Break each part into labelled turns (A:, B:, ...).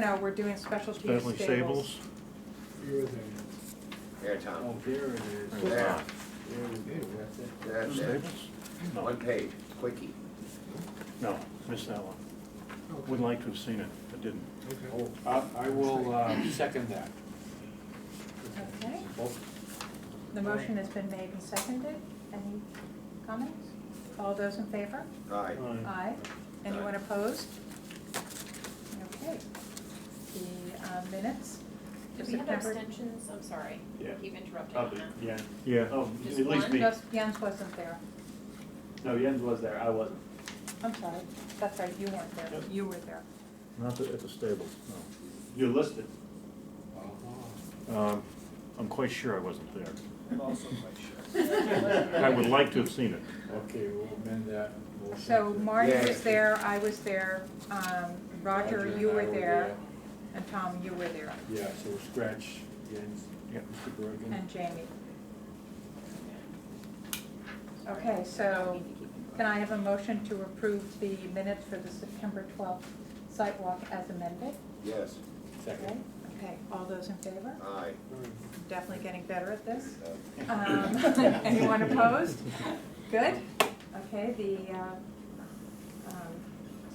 A: No, we're doing specialty
B: Bentley
A: stables.
B: Sables.
C: Here it is.
D: There, Tom,
C: Oh, there it is.
B: There's
C: There
D: Yeah.
B: not.
C: it is, that's it.
D: that's it,
B: Stables?
D: one page, quickie.
B: No, missed that one. Would
C: Okay.
B: like to have seen it, but didn't.
C: Okay.
E: Oh, I I will uh, second that.
A: Okay, the motion has been made and seconded. Any comments? All those in favor?
D: All right,
A: Aye. Anyone opposed? Okay. The uh, minutes?
F: Do
A: for
F: we have
A: September-
F: abstentions? I'm sorry,
E: Yeah.
F: keep interrupting on
G: Probably,
F: that.
G: yeah.
B: Yeah,
G: Oh, at
F: Just
G: least
F: one?
G: me.
A: Just Jens wasn't there.
G: No, Jens was there, I wasn't.
A: I'm sorry. That's right, you weren't there.
G: Yep.
A: You were there.
B: not the- at the stables,
G: You're listed.
C: uh-huh.
B: no. Um, I'm quite sure I wasn't there.
H: I'm also quite sure.
B: I would like to have seen it.
C: Okay, we'll amend that. motion
A: So
C: to-
A: Marty
D: Yeah.
A: was there, I was there, um, Roger,
C: and
A: you
C: I
A: were there, and Tom, you were there,
C: Yeah, so scratch Jens,
B: Yeah.
C: Mr. Bergen.
A: and Jamie. Okay, so can I have a motion to approve the minutes for the September twelfth site walk as amended?
D: yes,
A: Okay,
C: Second.
A: Okay, all those in favor?
D: all right.
A: I'm Definitely getting better at this.
D: Uh,
A: Um, Anyone opposed? Good. Okay, the uh, um,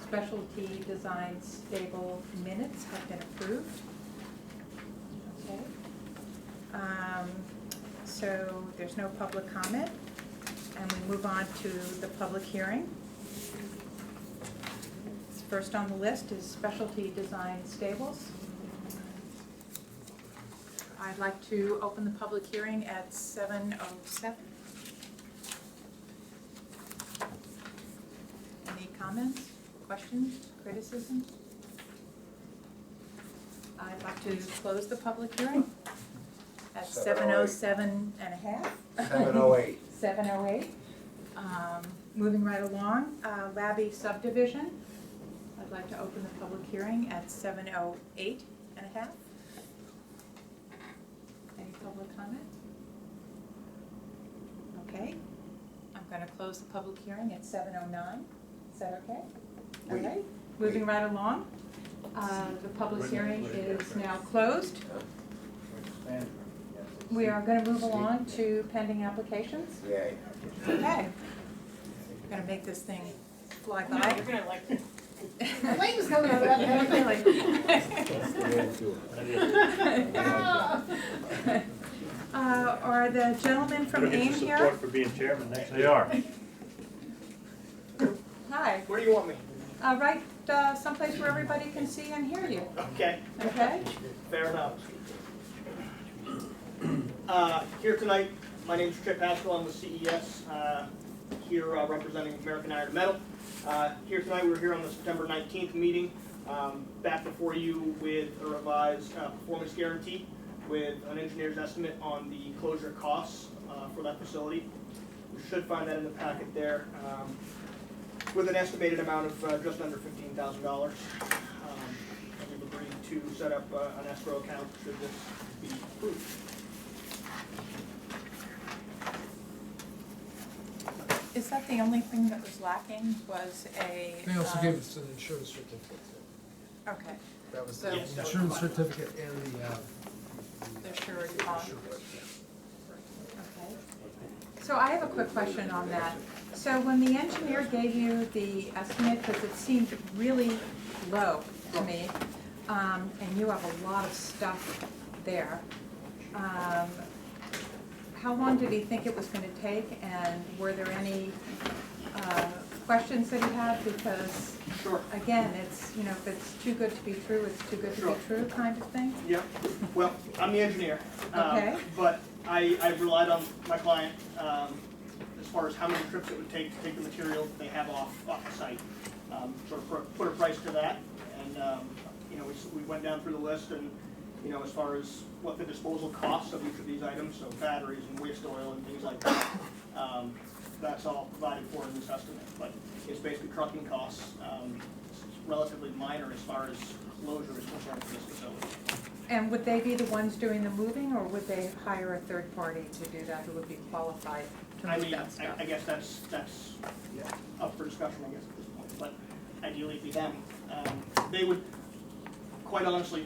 A: specialty design stable minutes have been approved. Okay. Um, So there's no public comment, and we move on to the public hearing. First on the list is specialty design stables. I'd like to open the public hearing at seven oh seven. Any comments, questions, criticisms? I'd like to close the public hearing at seven oh seven and a half.
D: Seven oh eight,
A: Seven oh eight. Um, moving right along, uh, Labby subdivision. I'd like to open the public hearing at seven oh eight and a half. Any public comment? Okay, I'm gonna close the public hearing at seven oh nine. Is that okay? All
D: Wait,
A: right, moving right along. Uh, the public
C: Wait,
A: hearing
C: wait,
A: is
C: wait.
A: now closed. We are gonna move along to pending applications.
D: yay.
A: Okay. Gonna make this thing fly
F: No,
A: by.
F: You're gonna like
A: The light was coming out of
C: That's the way to do it.
A: Uh, are the gentlemen from
G: Gonna get
A: AIM
G: your
A: here?
G: Support for being chairman next year.
B: They are.
A: Hi,
H: Where do you want me?
A: uh, right, uh, someplace where everybody can see and hear you,
H: Okay,
A: okay?
H: fair enough. Uh, Here tonight, my name's Chip Haskell, I'm with CES, uh, here uh, representing American Iron and Metal. Uh, Here tonight, we're here on the September 19th meeting, um, back before you with a revised uh, performance guarantee with an engineer's estimate on the closure costs uh, for that facility. You should find that in the packet there, um, with an estimated amount of uh, just under $15,000. Um, and we've agreed to set up uh, an escrow account should this be approved.
A: Is that the only thing that was lacking was a?
I: They also
A: um,
I: gave us an insurance certificate.
A: Okay,
I: That was
A: So-
I: the
H: Yes, that was
I: insurance
H: fine.
I: certificate and the, uh.
A: The surety bond.
I: surety, yeah.
A: okay. So I have a quick question on that. So when the engineer gave you the estimate, because it seemed really low to me, um, and you have a lot of stuff there, um, how long did he think it was gonna take, and were there any, uh, questions that he had? Because,
H: Sure.
A: again, it's, you know, if it's too good to be true, it's too good to be
H: Sure.
A: true kind of thing?
H: Yeah, well, I'm the engineer. um,
A: Okay.
H: But I, I relied on my client, um, as far as how many trips it would take to take the material that they have off, off the site. Um, sort of put- put a price to that, and, um, you know, we, s- we went down through the list and, you know, as far as what the disposal costs of each of these items, so batteries and waste oil and things like that. Um, that's all provided for in this estimate, but it's basically trucking costs, um, it's relatively minor as far as closure is concerned for this facility.
A: And would they be the ones doing the moving, or would they hire a third party to do that who would be qualified to
H: I
A: move
H: mean,
A: that
H: I,
A: stuff?
H: I guess that's, that's up for discussion, I guess, at this point, but ideally it'd be them. Um, They would, quite honestly,